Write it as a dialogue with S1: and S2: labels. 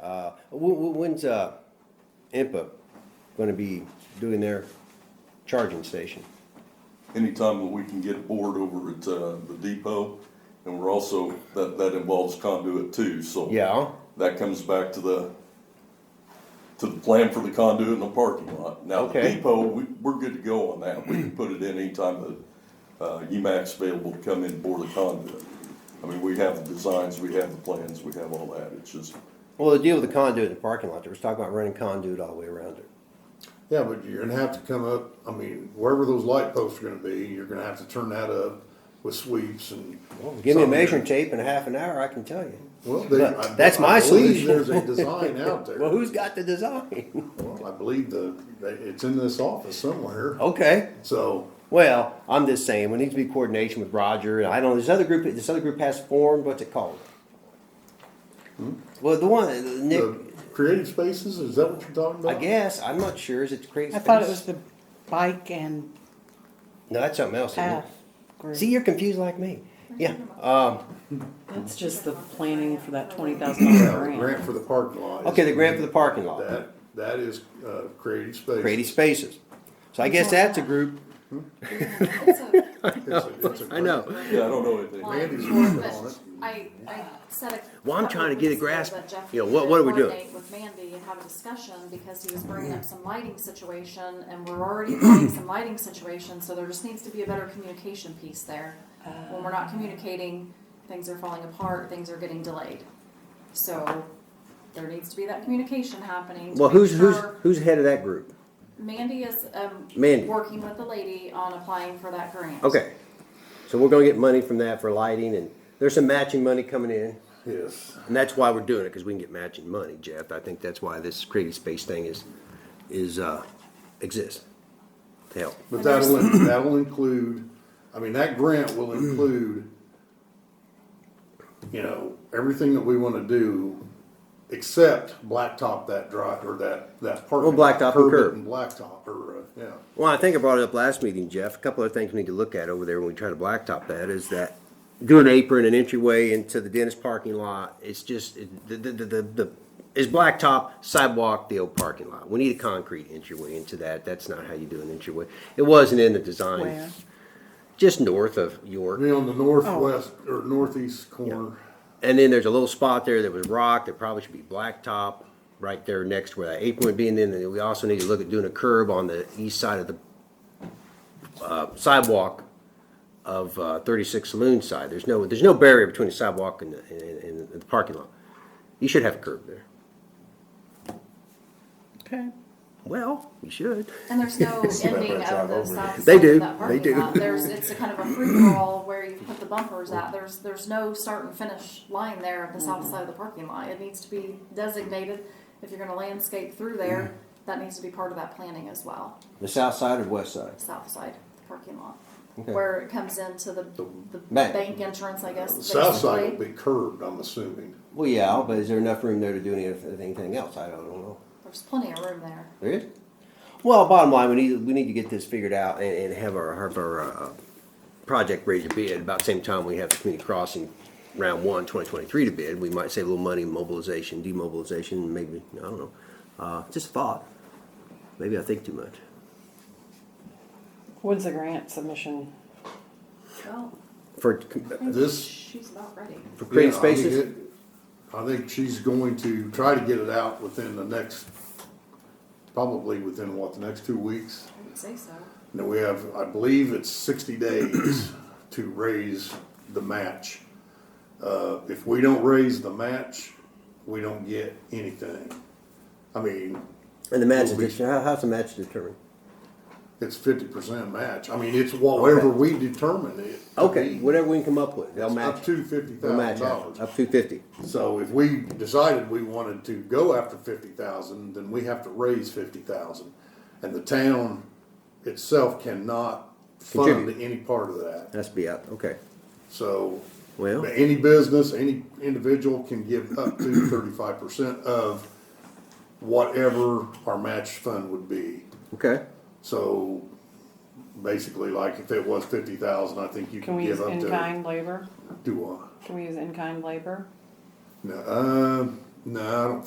S1: Uh, wh- wh- when's, uh, IMPA gonna be doing their charging station?
S2: anytime that we can get a board over at, uh, the depot. And we're also, that, that involves conduit too, so.
S1: Yeah,
S2: That comes back to the, to the plan for the conduit and the parking lot. Now, the
S1: Okay.
S2: depot, we, we're good to go on that. We can put it in anytime that, uh, UMAC's available to come in and bore the conduit. I mean, we have the designs, we have the plans, we have all that. It's just,
S1: well, the deal with the conduit in the parking lot, there was talk about running conduit all the way around it.
S3: Yeah, but you're gonna have to come up, I mean, wherever those light posts are gonna be, you're gonna have to turn that up with sweeps and.
S1: Give me a measuring tape in half an hour, I can tell you.
S3: Well, they- I-
S1: That's my
S3: I believe
S1: solution.
S3: There's a design out
S1: Well,
S3: there.
S1: who's got the design?
S3: Well, I believe the, it's in this office somewhere,
S1: Okay,
S3: so,
S1: well, I'm just saying, we need to be coordination with Roger, and I don't, this other group, this other group has formed, what's it called? Well, the one, uh, Nick,
S3: Hmm? the creative spaces, is that what you're talking
S1: I
S3: about?
S1: guess, I'm not sure, is it crazy?
S4: I thought it was the bike and
S1: No, that's something else. isn't it?
S4: path group.
S1: See, you're confused like me. Yeah, um,
S5: That's just the planning for that twenty thousand dollar
S3: The Grant for the parking lot. is-
S1: okay, the grant for the parking lot,
S3: That, that is, uh, creative spaces.
S1: creative spaces. So I guess that's a group,
S3: It's a- it's a
S1: I know.
S2: yeah, I don't know anything.
S3: Randy's working on it.
S6: I, I said a.
S1: Well, I'm trying to get a grasp,
S6: couple of weeks ago that Jeff
S1: you know, what- what are we
S6: needed to
S1: doing?
S6: coordinate With Mandy and have a discussion because he was bringing up some lighting situation and we're already planning some lighting situation, so there just needs to be a better communication piece there. When we're not communicating, things are falling apart, things are getting delayed. So there needs to be that communication happening. to
S1: well,
S6: make
S1: who's, who's,
S6: sure-
S1: who's head of that group?
S6: Mandy is, um,
S1: Mandy.
S6: working with the lady on applying for that grant.
S1: Okay. So we're gonna get money from that for lighting and there's some matching money coming in.
S3: Yes,
S1: And that's why we're doing it, because we can get matching money, Jeff. I think that's why this creative space thing is, is, uh, exists to help.
S3: but that'll, that'll include, I mean, that grant will include, you know, everything that we wanna do, except blacktop that drive, or that, that parking. lot,
S1: Oh, blacktop and
S3: it
S1: curb.
S3: And blacktop, or, uh, yeah,
S1: Well, I think I brought it up last meeting, Jeff. A couple of things we need to look at over there when we try to blacktop that is that do an apron and entryway into the dentist parking lot. It's just, it- the, the, the, the, the- is blacktop sidewalk the old parking lot. We need a concrete entryway into that. That's not how you do an entryway. It wasn't in the design.
S4: Where?
S1: Just north of York.
S3: I mean, on the northwest,
S1: Oh.
S3: or northeast corner,
S1: And then there's a little spot there that was rock that probably should be blacktop, right there next to where that apron would be. And then we also need to look at doing a curb on the east side of the uh, sidewalk of uh, 36 Saloon side. There's no, there's no barrier between the sidewalk and the, and, and the parking lot. You should have a curb there.
S4: Okay.
S1: Well, you should.
S6: And there's no ending of
S3: drive
S6: the
S3: over
S6: stop sign.
S1: They do.
S6: of that parking
S1: They do.
S6: lot. There's, it's a kind of a free-for-all where you put the bumpers at. There's, there's no start and finish line there of the
S1: Mm-hmm.
S6: south side of the parking lot. It needs to be designated. If you're gonna landscape through there,
S1: Mm-hmm.
S6: that needs to be part of that planning as well,
S1: The south side or west side?
S6: south side of the parking lot.
S1: Okay.
S6: Where it comes into the, the
S1: Back.
S6: bank entrance, I guess.
S3: the south side
S6: basically.
S3: will be curved, I'm assuming.
S1: Well, yeah, but is there enough room there to do any- anything else? I don't know.
S6: There's plenty of room there.
S1: There is. Well, bottom line, we need, we need to get this figured out and, and have our, have our, uh, project ready to bid. About the same time we have the community crossing round one, twenty twenty-three to bid, we might save a little money in mobilization, demobilization, maybe, I don't know. Uh, just a thought. Maybe I think too much.
S4: When's the grant submission?
S6: Well,
S1: For,
S6: I think
S3: This-
S6: she's about ready.
S1: for creative
S3: Yeah, I think
S1: spaces,
S3: it- I think she's going to try to get it out within the next, probably within what, the next two weeks?
S6: I would say so.
S3: And then we have, I believe it's sixty days to raise the match. Uh, if we don't raise the match, we don't get anything. I mean,
S1: and the match,
S3: Will be-
S1: is- how, how's the match determined?
S3: it's fifty percent match. I mean, it's whatever we determine it. to
S1: Okay,
S3: be.
S1: whatever we can come up with, they'll match.
S3: Up to fifty
S1: They'll
S3: thousand
S1: match,
S3: dollars.
S1: it. up to fifty.
S3: So if we decided we wanted to go after fifty thousand, then we have to raise fifty thousand. And the town itself cannot fund
S1: Contribute.
S3: any part of that.
S1: That's be out, okay.
S3: So,
S1: Well-
S3: but any business, any individual can give up to thirty-five percent of whatever our match fund would be.
S1: Okay,
S3: So basically, like if it was fifty thousand, I think you
S4: Can
S3: can
S4: we use
S3: give up
S4: in
S3: to.
S4: kind labor?
S3: Do what?
S4: Can we use in kind labor?
S3: No, uh, no, I don't